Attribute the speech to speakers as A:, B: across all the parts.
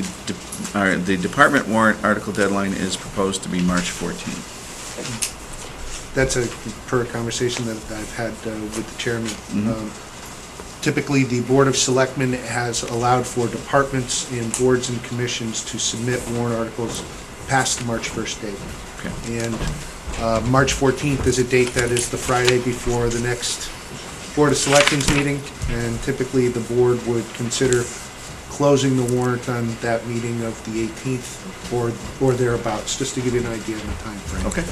A: The de- all right, The department warrant article deadline is proposed to be March 14th.
B: That's a, per conversation that I've had uh, with the chairman.
A: Mhm.
B: Um, Typically, the Board of Selectmen has allowed for departments and boards and commissions to submit warrant articles past the March 1st date.
A: Okay.
B: And uh, March 14th is a date that is the Friday before the next Board of Selectmen's meeting, and typically, the board would consider closing the warrant on that meeting of the 18th or or thereabouts, just to give you an idea of the timeframe.
A: Okay.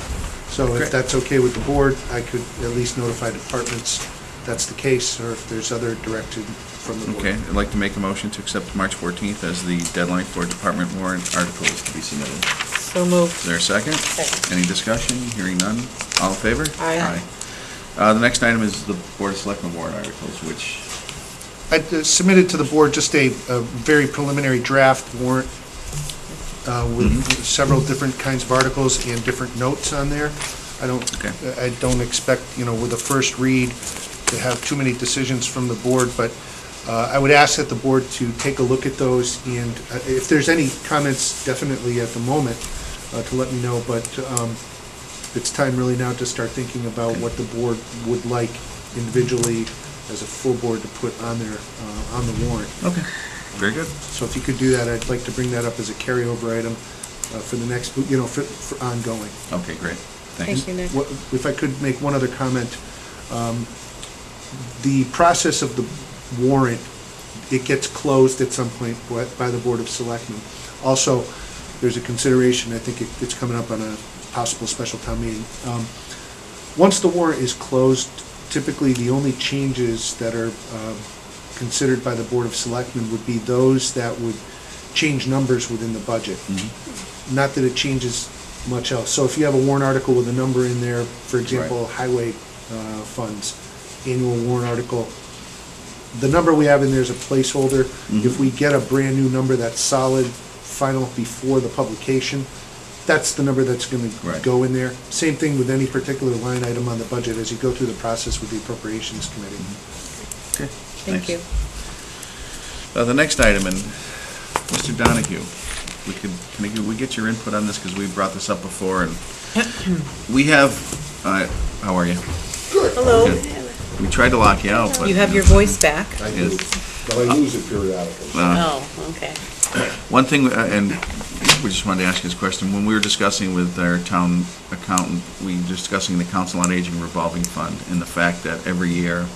B: So
A: Great.
B: if that's okay with the board, I could at least notify departments that's the case, or if there's other direction from the board.
A: Okay, I'd like to make a motion to accept March 14th as the deadline for department warrant articles to be submitted.
C: So moved.
A: Is there a second?
C: Second.
A: Any discussion? Hearing none. All in favor?
C: Aye.
A: Uh, The next item is the Board of Selectmen warrant articles, which,
B: I uh, submitted to the board just a, a very preliminary draft warrant uh,
A: Mm-hmm.
B: with several different kinds of articles and different notes on there. I
A: Okay.
B: don't, I don't expect, you know, with a first read to have too many decisions from the board, but uh, I would ask that the board to take a look at those and uh, if there's any comments, definitely at the moment, uh, to let me know, but um, it's time really now to start thinking about what the board would like individually as a full board to put on their, uh, on the warrant.
A: okay, very good.
B: So if you could do that, I'd like to bring that up as a carryover item uh, for the next, you know, for, for ongoing.
A: Okay, great. Thanks.
C: Thank you, Nick.
B: What- If I could make one other comment, um, the process of the warrant, it gets closed at some point by- by the Board of Selectmen. Also, there's a consideration, I think it- it's coming up on a possible special town meeting. Um, Once the warrant is closed, typically the only changes that are um, considered by the Board of Selectmen would be those that would change numbers within the budget
A: Mhm.
B: not that it changes much else. So if you have a warrant article with a number in there, for example, highway uh, funds, annual warrant article, the number we have in there is a placeholder.
A: Mm-hmm.
B: If we get a brand-new number that's solid, final before the publication, that's the number that's going to
A: Right.
B: go in there. Same thing with any particular line item on the budget as you go through the process with the appropriations committee.
A: Mm-hmm. Okay,
C: Thank
A: thanks.
C: you.
A: Uh, The next item, and Mr. Donahue, we could, can I get- we get your input on this, because we brought this up before, and we have, uh, how are you?
C: Hello.
A: We tried to lock you out, but...
C: You have your voice back?
D: I
A: Yes.
D: do, but I lose it periodically.
A: uh,
C: Oh, okay.
A: One thing, uh, and we just wanted to ask you this question, when we were discussing with our town accountant, we were discussing the Council on Aging revolving fund and the fact that every year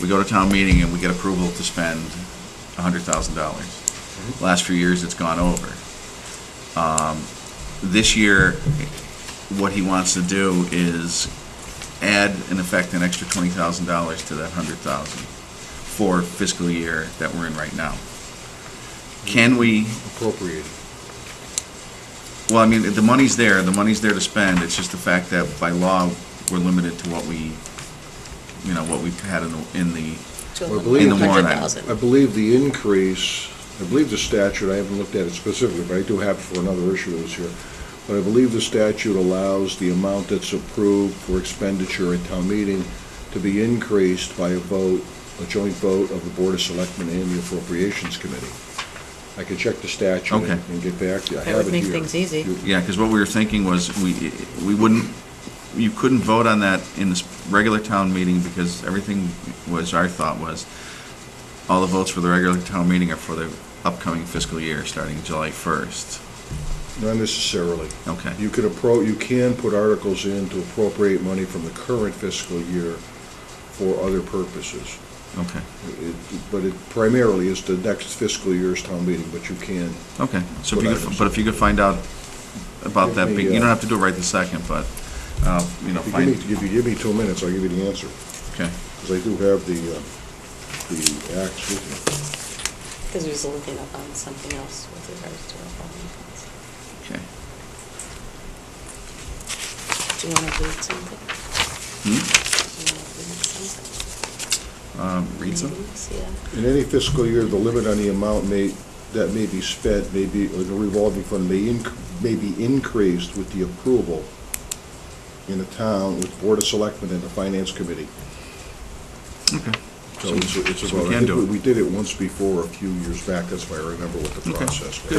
A: we go to town meeting and we get approval to spend a hundred thousand dollars. Last few years, it's gone over. Um, This year, what he wants to do is add in effect an extra twenty thousand dollars to that hundred thousand for fiscal year that we're in right now. Can we
D: Appropriated.
A: Well, I mean, the money's there, the money's there to spend, it's just the fact that by law, we're limited to what we, you know, what we've had in the, in the,
D: Well, I believe-
A: In the warrant item.
D: I believe the increase, I believe the statute, I haven't looked at it specifically, but I do have it for another issue that was here. But I believe the statute allows the amount that's approved for expenditure at town meeting to be increased by a vote, a joint vote of the Board of Selectmen and the Appropriations Committee. I can check the statute and-
A: Okay.
D: and get back to you. I
C: That
D: have
C: would
D: it
C: make
D: here.
C: things easy.
D: You-
A: yeah, because what we were thinking was, we, we wouldn't, you couldn't vote on that in this regular town meeting, because everything was, our thought was, all the votes for the regular town meeting are for the upcoming fiscal year, starting July first.
D: Not necessarily.
A: Okay.
D: You could appro, you can put articles in to appropriate money from the current fiscal year for other purposes.
A: Okay,
D: It- But it primarily is the next fiscal year's town meeting, but you can.
A: okay, so if you could, but if you could find out about that, big- you don't have to do it right this second, but, uh, you know,
D: If you give me,
A: find,
D: if you give me two minutes, I'll give you the answer,
A: okay.
D: because I do have the, uh, the acts with me.
E: Because he was looking up on something else with regards to our following funds.
A: Okay.
E: Do you want to read something?
A: Hmm?
E: Do you want to read
A: Um, Read
E: something?
A: some?
E: Maybe, Yeah.
D: In any fiscal year, the limit on the amount may, that may be spent, may be, or the revolving fund may, inc- may be increased with the approval in the town, with Board of Selectmen and the Finance Committee.
A: Okay.
D: So it's a- it's a
A: So we
D: vote.
A: can
D: I think
A: do it.
D: We did it once before, a few years back, that's why I remember what the
A: Okay.
D: process was.